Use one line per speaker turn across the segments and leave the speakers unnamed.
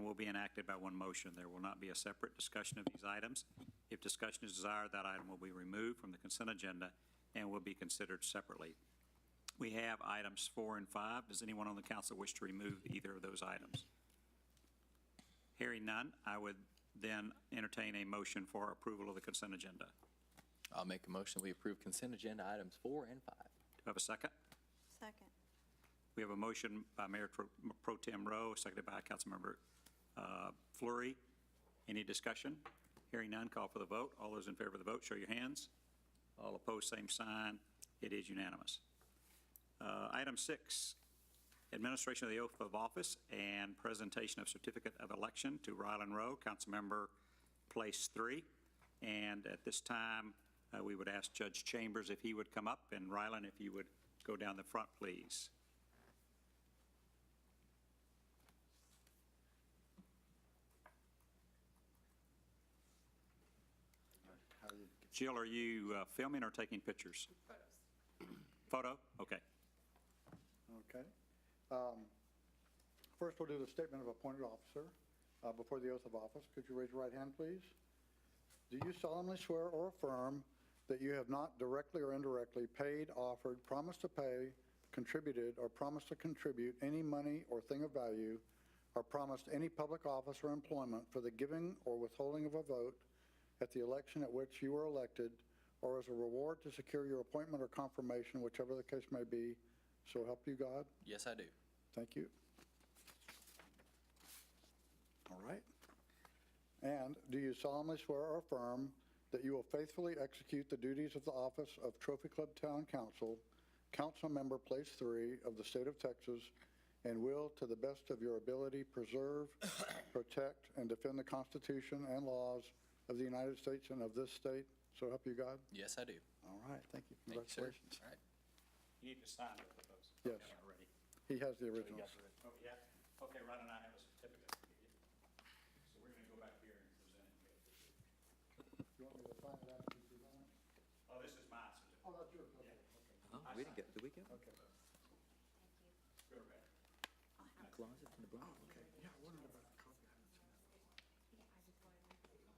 will be enacted by one motion. There will not be a separate discussion of these items. If discussion is desired, that item will be removed from the consent agenda and will be considered separately. We have items four and five. Does anyone on the council wish to remove either of those items? Hearing none, I would then entertain a motion for approval of the consent agenda.
I'll make a motion, we approve consent agenda items four and five.
Do I have a second?
Second.
We have a motion by Mayor Pro- Pro Tem Rowe, seconded by Councilmember uh, Flurry. Any discussion? Hearing none, call for the vote. All those in favor of the vote, show your hands. All opposed, same sign. It is unanimous. Uh, Item six, administration of the oath of office and presentation of certificate of election to Rylan Rowe, Councilmember Place Three. And at this time, uh, we would ask Judge Chambers if he would come up, and Rylan, if you would go down the front, please. Jill, are you uh, filming or taking pictures? Photos. Photo? Okay.
Okay. Um, First, we'll do the statement of appointed officer uh, before the oath of office. Could you raise your right hand, please? Do you solemnly swear or affirm that you have not directly or indirectly paid, offered, promised to pay, contributed, or promised to contribute any money or thing of value, or promised any public office or employment for the giving or withholding of a vote at the election at which you were elected, or as a reward to secure your appointment or confirmation, whichever the case may be, so help you God?
Yes, I do.
Thank you. All right. And do you solemnly swear or affirm that you will faithfully execute the duties of the office of Trophy Club Town Council, Council Member Place Three of the State of Texas, and will, to the best of your ability, preserve, protect, and defend the Constitution and laws of the United States and of this state? So help you God.
Yes, I do.
All right, thank you.
Thank you, sir.
Congratulations.
All right.
You need to sign both of those.
Yes.
Okay, Already.
He has the originals.
Oh, yeah? Okay, Ron and I have a certificate. So we're going to go back here and present it.
You want me to sign it after you do that?
Oh, this is my certificate.
Oh, that's yours, okay.
Oh, we didn't get, did we get
Okay.
Go back.
a closet in the block?
Okay, yeah, I wondered about the copy. I haven't seen that.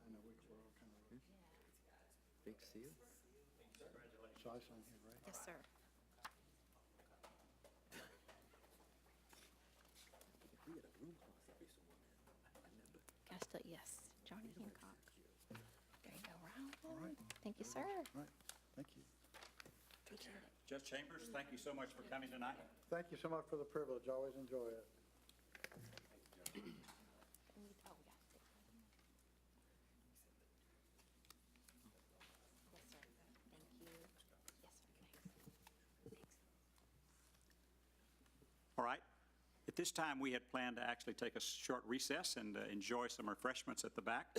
I know, we we're all kind of,
Big seal?
so I sign here, right?
Yes, sir. Can I still, yes, Johnny Hancock. There you go,
All
Ryan.
right.
Thank you, sir.
All right, thank you.
Appreciate it.
Judge Chambers, thank you so much for coming tonight.
Thank you so much for the privilege, I always enjoy it.
Oh, yeah. Yes, sir. Thank you. Yes, sir. Thanks. Thanks.
All right. At this time, we had planned to actually take a short recess and uh, enjoy some refreshments at the back.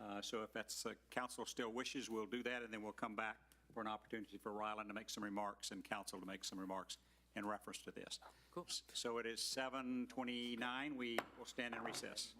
Uh, So if that's, uh, council still wishes, we'll do that, and then we'll come back for an opportunity for Ryland to make some remarks and council to make some remarks in reference to this.
Cool.
So it is 7:29. We will stand in recess.